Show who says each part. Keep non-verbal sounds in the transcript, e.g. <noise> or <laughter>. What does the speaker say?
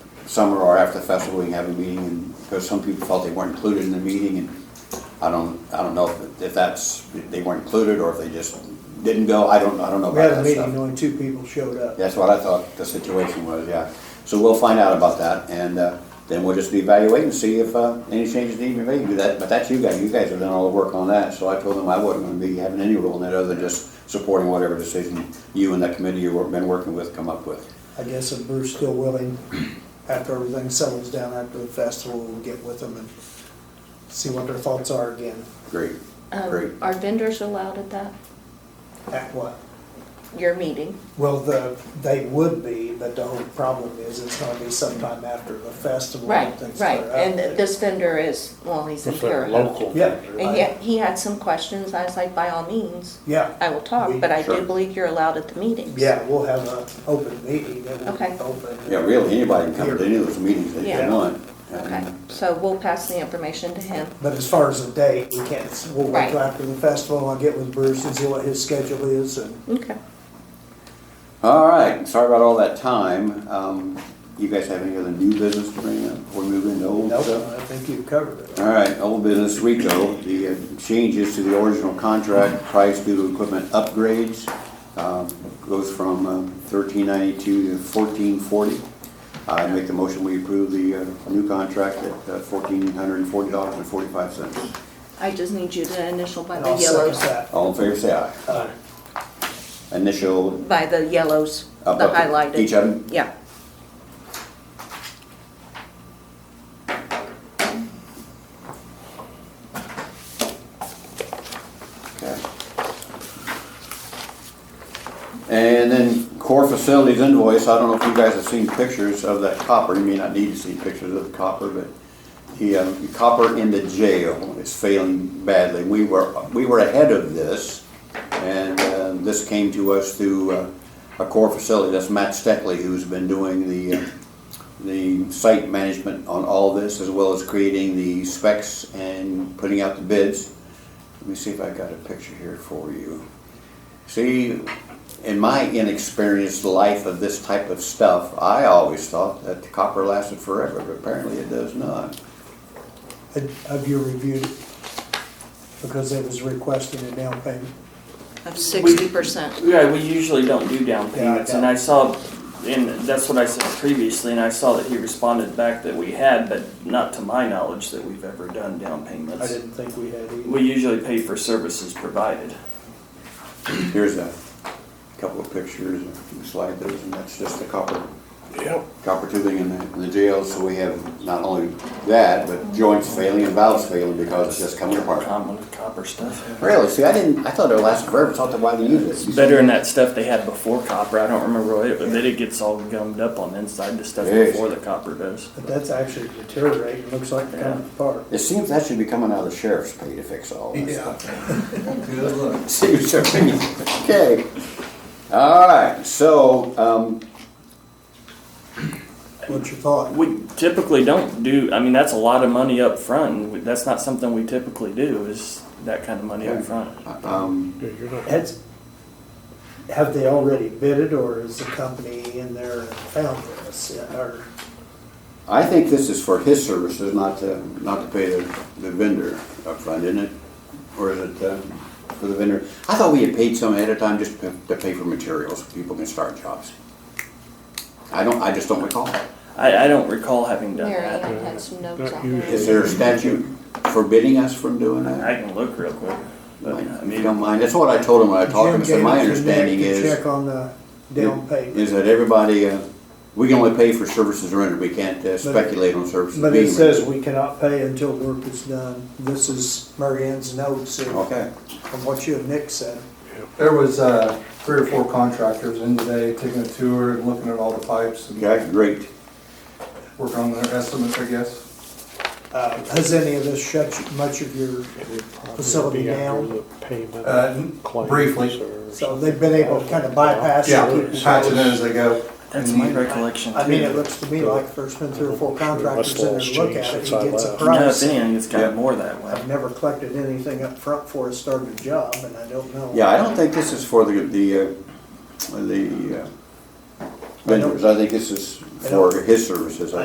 Speaker 1: summer or after the festival, we can have a meeting, and, because some people felt they weren't included in the meeting, and I don't, I don't know if, if that's, if they weren't included, or if they just didn't go, I don't, I don't know
Speaker 2: We had
Speaker 1: about that
Speaker 2: a meeting,
Speaker 1: stuff.
Speaker 2: and only two people showed up.
Speaker 1: That's what I thought the situation was, yeah. So we'll find out about that, and uh, then we'll just evaluate and see if uh, any changes need to be made. Do that, but that's you guys, you guys have done all the work on that, so I told them I wasn't gonna be having any role in that other than just supporting whatever decision you and that committee you've been working with come up with.
Speaker 2: I guess if Bruce's still willing, after everything settles down after the festival, we'll get with them and see what their thoughts are again.
Speaker 1: Great, great.
Speaker 3: Um, Are vendors allowed at that,
Speaker 2: At what?
Speaker 3: your meeting?
Speaker 2: Well, the, they would be, but the whole problem is it's gonna be sometime after the festival.
Speaker 3: Right,
Speaker 2: things
Speaker 3: right,
Speaker 2: are up.
Speaker 3: and this vendor is, well, he's in
Speaker 4: It's like
Speaker 3: Terre
Speaker 4: local.
Speaker 2: Yeah.
Speaker 3: And yet, he had some questions, I was like, by all means,
Speaker 2: Yeah,
Speaker 3: I will talk, but I
Speaker 1: Sure.
Speaker 3: do believe you're allowed at the meetings.
Speaker 2: yeah, we'll have an open meeting that will
Speaker 3: Okay.
Speaker 2: be open.
Speaker 1: Yeah, really, anybody can come to any of those meetings that they
Speaker 3: Yeah.
Speaker 1: want.
Speaker 3: Okay,
Speaker 1: And
Speaker 3: so we'll pass the information to him.
Speaker 2: But as far as the date, we can't, we'll wait till
Speaker 3: Right.
Speaker 2: after the festival, I'll get with Bruce and see what his schedule is and
Speaker 3: Okay.
Speaker 1: All right, sorry about all that time. Um, You guys have any other new business to bring up before we move into old
Speaker 2: Nope,
Speaker 1: stuff?
Speaker 2: I think you've covered it.
Speaker 1: All right, old business Rico, the uh, changes to the original contract price due to equipment upgrades um, goes from um, 1392 to 1440. I make the motion, we approve the uh, new contract at uh, $1,440.45.
Speaker 3: I just need you to initial by
Speaker 2: And
Speaker 3: the
Speaker 2: I'll second
Speaker 3: yellows,
Speaker 2: that.
Speaker 1: All in favor, say aye.
Speaker 2: Uh,
Speaker 1: Initial,
Speaker 3: by the yellows, the
Speaker 1: Up, up,
Speaker 3: highlighted.
Speaker 1: each of 'em?
Speaker 3: Yeah.
Speaker 1: okay. And then core facilities invoice, I don't know if you guys have seen pictures of that copper, you may not need to see pictures of the copper, but the um, copper in the jail is failing badly. We were, we were ahead of this, and uh, this came to us through uh, a core facility, that's Matt Steckley, who's been doing the, uh, the site management on all this, as well as creating the specs and putting out the bids. Let me see if I got a picture here for you. See, in my inexperienced life of this type of stuff, I always thought that the copper lasted forever, but apparently it does not.
Speaker 2: Have you reviewed it? Because it was requesting a down payment.
Speaker 3: Of sixty percent.
Speaker 5: Yeah, we usually don't do down
Speaker 2: Yeah, I
Speaker 5: payments, and
Speaker 2: know.
Speaker 5: I saw, and that's what I said previously, and I saw that he responded back that we had, but not to my knowledge that we've ever done down
Speaker 2: I
Speaker 5: payments.
Speaker 2: didn't think we had either.
Speaker 5: We usually pay for services provided.
Speaker 1: Here's a couple of pictures, and slide those, and that's just the copper,
Speaker 4: Yep.
Speaker 1: copper tubing in the, in the jail. So we have not only that, but joints failing and valves failing because Oh, it's just coming apart.
Speaker 5: Common copper stuff.
Speaker 1: Really? See, I didn't, I thought it lasted forever, so I thought why do you use it?
Speaker 5: Better than that stuff they had before copper, I don't remember what it, but then it gets all gummed up on the inside, the stuff
Speaker 1: Yes.
Speaker 5: before the copper does.
Speaker 2: But that's actually deteriorating, looks like it's coming apart.
Speaker 1: It seems that should be coming out of the sheriff's pay to fix all this stuff.
Speaker 2: <laughs>
Speaker 6: Good
Speaker 1: <laughs>
Speaker 6: luck.
Speaker 1: See what you're thinking. Okay. All right, so, um,
Speaker 2: What's your thought?
Speaker 5: We typically don't do, I mean, that's a lot of money up front, and we- that's not something we typically do, is that kind of money up front.
Speaker 1: um,
Speaker 4: Yeah, you're not.
Speaker 2: That's, have they already bid it, or is the company in there and found this? Or,
Speaker 1: I think this is for his services, not to, not to pay the, the vendor upfront, isn't it? Or is it, uh, for the vendor? I thought we had paid some ahead of time just to to pay for materials, so people can start jobs. I don't, I just don't recall.
Speaker 5: I, I don't recall having done
Speaker 3: Mary,
Speaker 5: that.
Speaker 3: I had some notes
Speaker 4: Not
Speaker 3: on there.
Speaker 1: Is there a statute forbidding us from doing
Speaker 5: I
Speaker 1: that?
Speaker 5: can look real quick. But, I
Speaker 1: If you
Speaker 5: mean,
Speaker 1: don't mind, that's what I told him when I talked to him, I said,
Speaker 2: Jim
Speaker 1: my
Speaker 2: gave it to Nick
Speaker 1: understanding
Speaker 2: to
Speaker 1: is.
Speaker 2: Check on the down payment.
Speaker 1: is that everybody, uh, we can only pay for services rendered, we can't uh, speculate on services
Speaker 2: But it
Speaker 1: being
Speaker 2: says
Speaker 1: rendered.
Speaker 2: we cannot pay until work is done. This is Mary Ann's notes and-
Speaker 1: Okay,
Speaker 2: from what you and Nick said.
Speaker 6: There was uh, three or four contractors in today, taking a tour and looking at all the pipes and
Speaker 1: okay, great.
Speaker 6: working on their estimates, I guess.
Speaker 2: Uh, Has any of this shut you- much of your,
Speaker 4: It would probably
Speaker 2: Facility
Speaker 4: be after
Speaker 2: down.
Speaker 4: the payment
Speaker 6: Uh, n-
Speaker 4: claims
Speaker 6: briefly.
Speaker 4: or
Speaker 2: so they've been able to kind of bypass
Speaker 6: Yeah,
Speaker 2: it?
Speaker 6: patching it as they go.
Speaker 5: that's my
Speaker 6: And-
Speaker 5: recollection.
Speaker 2: I mean,
Speaker 5: too.
Speaker 2: it looks to me like there's been three or four contractors in there to look at it,
Speaker 4: Since
Speaker 2: he
Speaker 4: I
Speaker 2: gets a
Speaker 4: left.
Speaker 5: No, if
Speaker 2: price.
Speaker 5: anything, it's got
Speaker 1: Yeah.
Speaker 5: more that way.
Speaker 2: I've never collected anything up front for a started job, and I don't know.
Speaker 1: Yeah, I don't think this is for the, the, uh, the uh, vendors, I think this is for his services.